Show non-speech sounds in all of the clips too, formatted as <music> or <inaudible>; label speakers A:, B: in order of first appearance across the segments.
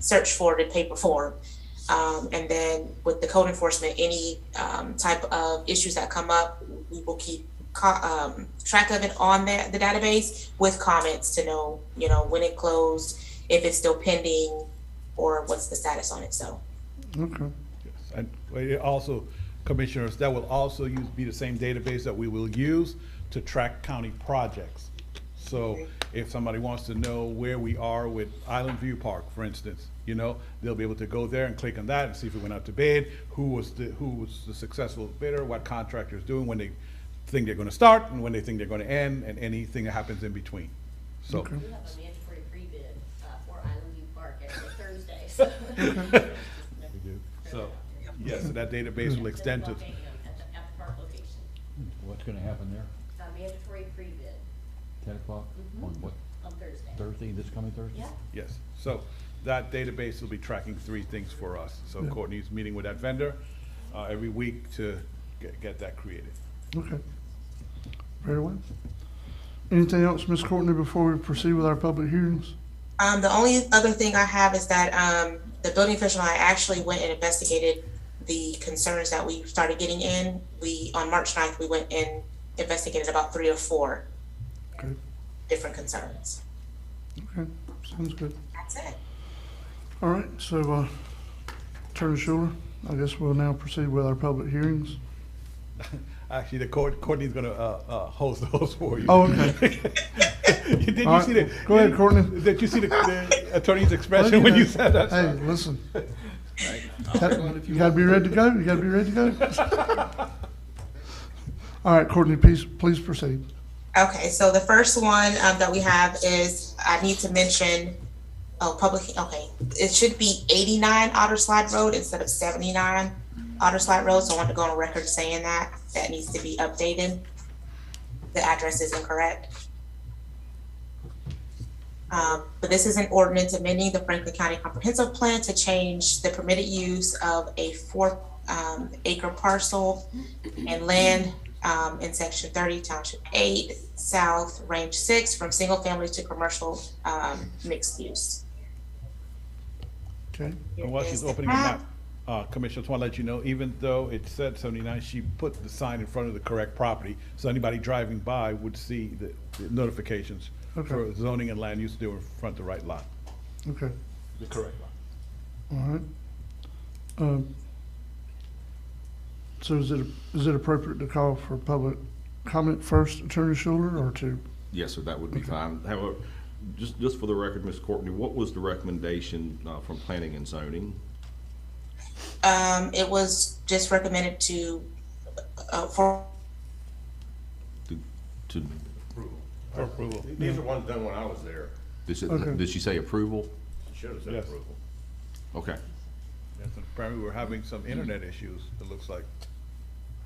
A: search for it in paper form. Um, and then with the code enforcement, any um, type of issues that come up, we will keep co- um, track of it on the, the database with comments to know, you know, when it closed, if it's still pending, or what's the status on it. So
B: Okay.
C: Yes, And it also, commissioners, that will also use, be the same database that we will use to track county projects. So if somebody wants to know where we are with Island View Park, for instance, you know, they'll be able to go there and click on that and see if we went out to bid, who was the, who was the successful bidder, what contractor's doing, when they think they're gonna start, and when they think they're gonna end, and anything that happens in between. So, <laughs>
D: We
B: Okay.
D: have a mandatory pre-bid uh, for Island View Park every Thursday, so.
C: <laughs>
D: We do.
C: so, yes, so that database will extend to,
D: At the, at the park location,
E: What's gonna happen there?
D: a mandatory pre-bid
E: Ten o'clock on what,
D: on Thursday.
E: Thursday, this coming Thursday?
D: Yeah,
C: Yes, so that database will be tracking three things for us. So Courtney's meeting with that vendor uh, every week to get, get that created. <laughs>
B: Okay. Very well. Anything else, Ms. Courtney, before we proceed with our public hearings?
A: um, the only other thing I have is that um, the building official and I actually went and investigated the concerns that we started getting in. We on March 9th, we went and investigated about three or four
B: Okay.
A: different concerns.
B: Okay, sounds good.
A: That's it.
B: All right, so, uh, Attorney Schuler, I guess we'll now proceed with our public hearings.
C: Actually, the court, Courtney's gonna uh, uh, host those for you.
B: Oh, okay.
C: <laughs> Did
B: All
C: you
B: right,
C: see the?
B: go ahead, Courtney.
C: Did you see the- the attorney's expression when you said that?
B: Hey,
C: <laughs>
B: listen. You gotta be ready to go, you gotta be ready to
C: <laughs>
B: go. All right, Courtney, please, please proceed.
A: Okay, so the first one um, that we have is, I need to mention, oh, public, okay, it should be eighty-nine Otter Slide Road instead of seventy-nine Otter Slide Road, so I want to go on record saying that, that needs to be updated. The address is incorrect. Um, But this is an ordinance amending the Franklin County Comprehensive Plan to change the permitted use of a four um, acre parcel and land um, in section thirty, township eight, south, range six, from single family to commercial um, mixed use.
B: Okay,
C: And while she's opening the map, uh, Commissioner, just want to let you know, even though it said seventy-nine, she put the sign in front of the correct property. So anybody driving by would see the the notifications
B: Okay.
C: for zoning and land use, they were in front of the right lot.
B: okay,
C: The correct lot.
B: all right. Um, So is it, is it appropriate to call for public comment first, Attorney Schuler, or to?
F: Yes, sir, that would be fine. However, just, just for the record, Ms. Courtney, what was the recommendation uh, from planning and zoning?
A: Um, it was just recommended to, uh, for,
F: To- To,
C: For approval.
G: These are ones done when I was there.
F: did she,
B: Okay.
F: did she say approval?
G: Should have said
C: Yes.
G: approval.
F: Okay,
C: Yes, and apparently we're having some internet issues, it looks like.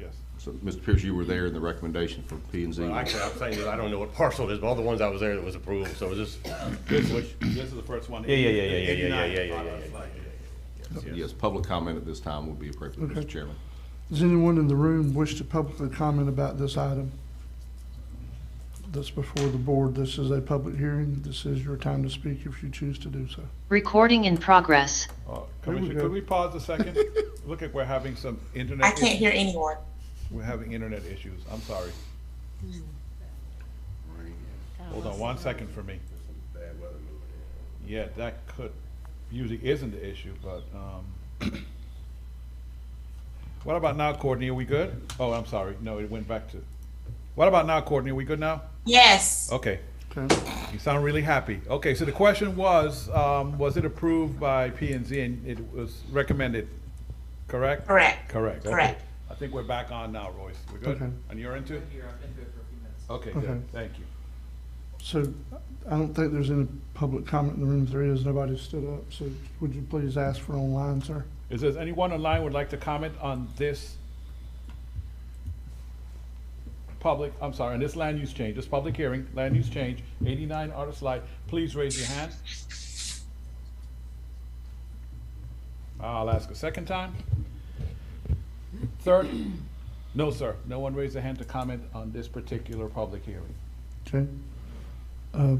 C: Yes.
F: so, Mr. Pierce, you were there in the recommendation for P and Z.
G: Well, Actually, I'm saying that I don't know what parcel it is, but all the ones I was there that was approved, so it was just,
C: This is the first one.
G: Yeah, yeah, yeah, yeah, yeah, yeah, yeah, yeah, yeah, yeah, yeah.
F: Yes, public comment at this time would be appropriate,
B: Okay.
F: Mr. Chairman.
B: Does anyone in the room wish to publicly comment about this item? That's before the board. This is a public hearing. This is your time to speak if you choose to do so.
H: Recording in progress.
C: Uh,
G: Oh,
C: Commissioner,
B: go.
C: could we pause a second? Look like we're having some internet.
A: I can't
C: issues.
A: hear anyone.
C: We're having internet issues, I'm sorry. Hold on one second for me. Yeah, that could, usually isn't the issue, but, um, <coughs> what about now, Courtney, are we good? Oh, I'm sorry, no, it went back to, what about now, Courtney, are we good now?
A: Yes,
C: Okay.
B: Okay,
C: You sound really happy. Okay, so the question was, um, was it approved by P and Z and it was recommended, correct?
A: Correct.
C: Correct. okay.
A: Correct.
C: I think we're back on now, Royce. We're good?
B: Okay.
C: And you're into it? Okay,
B: Okay.
C: good, thank you.
B: so I don't think there's any public comment in the room. If there is, nobody stood up. So would you please ask for online, sir?
C: Is there anyone online would like to comment on this public, I'm sorry, on this land use change, this public hearing, land use change, eighty-nine Artist Slide? Please raise your hand. I'll ask a second time. Third? No, sir. No one raised a hand to comment on this particular public hearing.
B: Okay. Uh,